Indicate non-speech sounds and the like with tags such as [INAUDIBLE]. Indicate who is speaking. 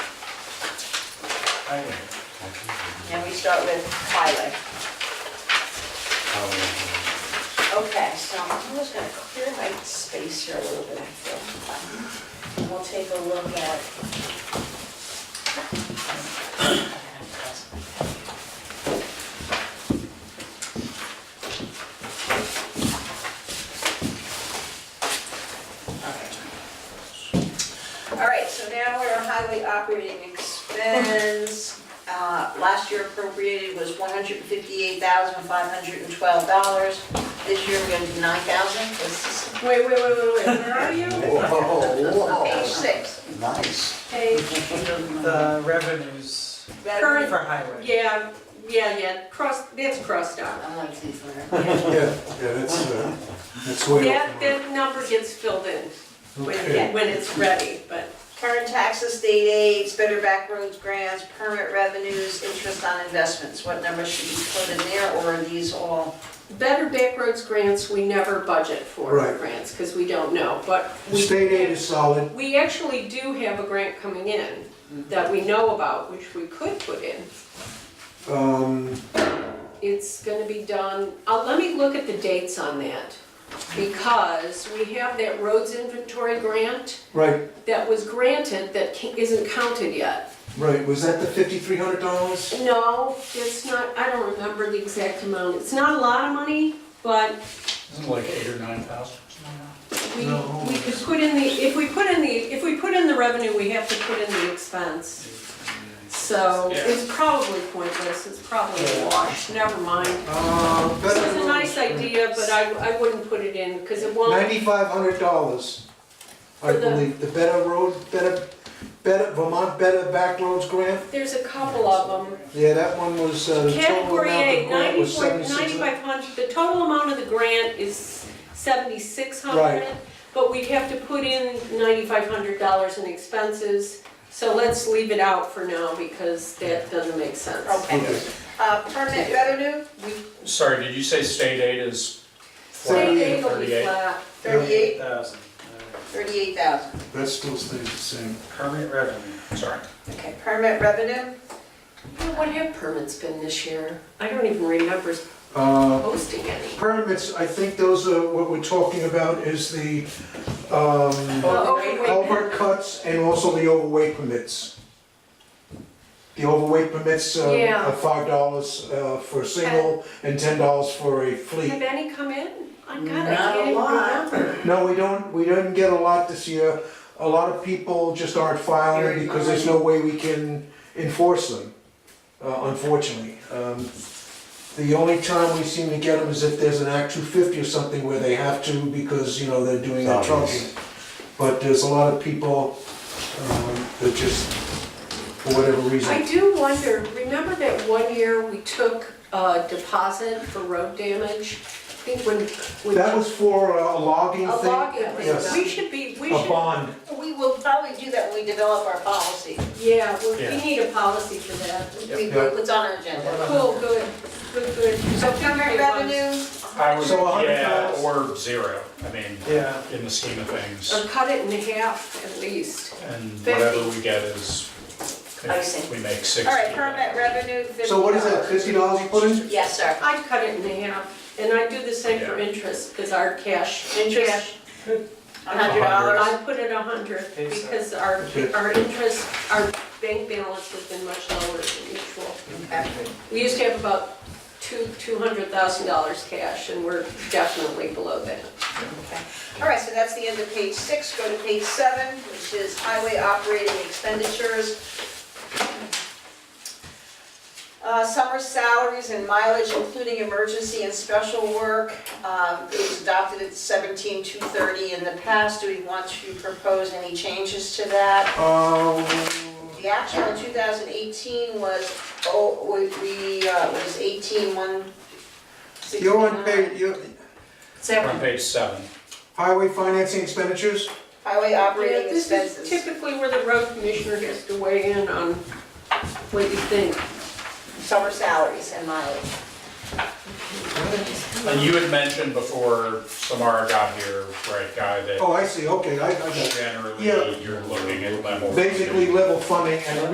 Speaker 1: Okay. And we start with highway. Okay, so I'm just gonna clear my space here a little bit, I feel. And we'll take a look at. All right, so now we're on highway operating expense. Uh, Last year appropriated was $158,512. This year we're going to do $9,000.
Speaker 2: Wait, wait, wait, wait, wait, where are
Speaker 3: [LAUGHS]
Speaker 2: you?
Speaker 1: Page
Speaker 4: Whoa,
Speaker 1: six,
Speaker 4: nice.
Speaker 2: Page,
Speaker 5: The revenues for
Speaker 2: Current-
Speaker 5: highway.
Speaker 2: yeah, yeah, yeah, cross, that's crossed out.
Speaker 1: I'm like, "Geez, whatever."
Speaker 2: Yeah.
Speaker 3: Yeah, yeah, that's, uh, that's way
Speaker 2: That,
Speaker 3: off. the mark.
Speaker 2: that number gets filled in when,
Speaker 3: Okay.
Speaker 2: when it's ready, but
Speaker 1: Current taxes, state aids, better back roads grants, permit revenues, interest on investments, what numbers should be put in there, or are these all?
Speaker 2: better backroads grants, we never budget for
Speaker 3: Right.
Speaker 2: grants, because we don't know, but
Speaker 3: The
Speaker 2: we.
Speaker 3: State aid is solid,
Speaker 2: We actually do have a grant coming in that we know about, which we could put in.
Speaker 3: um,
Speaker 2: It's gonna be done, uh, let me look at the dates on that, because we have that roads inventory grant
Speaker 3: right,
Speaker 2: that was granted that ca- isn't counted yet.
Speaker 3: right, was that the fifty-three hundred dollars?
Speaker 2: No, it's not, I don't remember the exact amount, it's not a lot of money, but
Speaker 6: Isn't it like eight or nine thousand?
Speaker 2: we,
Speaker 3: No.
Speaker 2: we could put in the, if we put in the, if we put in the revenue, we have to put in the expense. So it's probably pointless, it's probably a wash, never mind.
Speaker 3: Uh,
Speaker 2: This
Speaker 3: better.
Speaker 2: is a nice idea, but I, I wouldn't put it in, because it won't,
Speaker 3: Ninety-five hundred dollars, I
Speaker 2: For the-
Speaker 3: believe, the Better Road, Better, Better, Vermont Better Back Roads Grant.
Speaker 2: there's a couple of them.
Speaker 3: Yeah, that one was, uh, the total
Speaker 2: Category
Speaker 3: amount of
Speaker 2: A,
Speaker 3: the grant was
Speaker 2: 94,
Speaker 3: seventy-six.
Speaker 2: 9500, the total amount of the grant is 7,600,
Speaker 3: Right.
Speaker 2: but we'd have to put in $9,500 in expenses, so let's leave it out for now, because that doesn't make sense.
Speaker 1: Okay.
Speaker 3: Okay.
Speaker 1: Uh, permit revenue, we,
Speaker 6: Sorry, did you say state aid is?
Speaker 2: State
Speaker 3: Thirty-eight,
Speaker 2: aid will be
Speaker 6: 38.
Speaker 2: flat,
Speaker 1: thirty-eight,
Speaker 5: Thousand.
Speaker 6: uh,
Speaker 1: thirty-eight thousand.
Speaker 3: That still stays the same.
Speaker 5: Permit revenue.
Speaker 6: Sorry.
Speaker 1: Okay, permit revenue,
Speaker 2: Yeah, what have permits been this year? I don't even remember
Speaker 3: Uh,
Speaker 2: posting any.
Speaker 3: permits, I think those are, what we're talking about is the, um,
Speaker 2: Oh, okay, wait.
Speaker 3: culvert cuts and also the overweight permits. The overweight permits uh,
Speaker 2: Yeah.
Speaker 3: are five dollars uh, for a single and ten dollars for a
Speaker 2: Have
Speaker 3: fleet.
Speaker 2: any come in? I got it,
Speaker 1: Not
Speaker 2: I
Speaker 1: a
Speaker 2: can't even
Speaker 1: lot.
Speaker 2: remember.
Speaker 3: No, we don't, we didn't get a lot this year. A lot of people just aren't filing because there's no way we can enforce them, uh, unfortunately. Um, The only time we seem to get them is if there's an Act two fifty or something where they have to because, you know, they're doing their
Speaker 4: Zombies.
Speaker 3: trucking. But there's a lot of people um, that just, for whatever
Speaker 2: I
Speaker 3: reason,
Speaker 2: do wonder, remember that one year we took a deposit for road damage? I think when, when.
Speaker 3: that was for uh, a logging
Speaker 2: A
Speaker 3: thing,
Speaker 2: login
Speaker 3: Yes.
Speaker 2: thing, we should be, we
Speaker 3: a
Speaker 2: should,
Speaker 3: bond.
Speaker 1: we will probably do that when we develop our policy,
Speaker 2: yeah, we- we
Speaker 6: Yeah.
Speaker 2: need a policy for that.
Speaker 1: we, it's on our agenda.
Speaker 2: Cool, good, good, good.
Speaker 1: So permit revenue,
Speaker 6: I would,
Speaker 3: So a hundred
Speaker 6: yeah,
Speaker 3: thousand.
Speaker 6: or zero, I mean,
Speaker 5: Yeah.
Speaker 6: in the scheme of
Speaker 2: Or
Speaker 6: things.
Speaker 2: cut it in half at least.
Speaker 6: And
Speaker 2: Fifty.
Speaker 6: whatever we get is,
Speaker 1: I see.
Speaker 6: if we make sixty.
Speaker 1: all right, permit revenue, fifty dollars.
Speaker 3: So what is that, fifty dollars you put in?
Speaker 1: Yes, sir.
Speaker 2: I'd cut it in half, and I'd do the same for
Speaker 6: Yeah.
Speaker 2: interest, because our cash.
Speaker 1: Interest, hundred
Speaker 6: hundred.
Speaker 1: dollars.
Speaker 2: I put it a hundred
Speaker 5: Okay, so-
Speaker 2: because our,
Speaker 3: Okay.
Speaker 2: our interest, our bank balance has been much lower than usual. We used to have about two, two hundred thousand dollars cash and we're definitely below that.
Speaker 1: All right, so that's the end of page six, go to page seven, which is highway operating expenditures. Uh, Summer salaries and mileage, including emergency and special work, um, it was adopted at seventeen two thirty in the past. Do we want to propose any changes to that?
Speaker 3: Um,
Speaker 1: The actual in two thousand eighteen was, oh, we, we, uh, was eighteen one sixty-nine.
Speaker 3: You're on page, you
Speaker 6: We're on page seven.
Speaker 3: highway financing expenditures?
Speaker 1: Highway
Speaker 2: Yeah,
Speaker 1: operating
Speaker 2: this
Speaker 1: expenses.
Speaker 2: is typically where the road commissioner has to weigh in on what you think.
Speaker 1: summer salaries and mileage.
Speaker 6: And you had mentioned before Samara got here, right, Guy, that
Speaker 3: Oh, I Oh, see, okay, I, I got it.
Speaker 6: generally
Speaker 3: Yeah.
Speaker 6: you're looking at level.
Speaker 3: Basically level funding and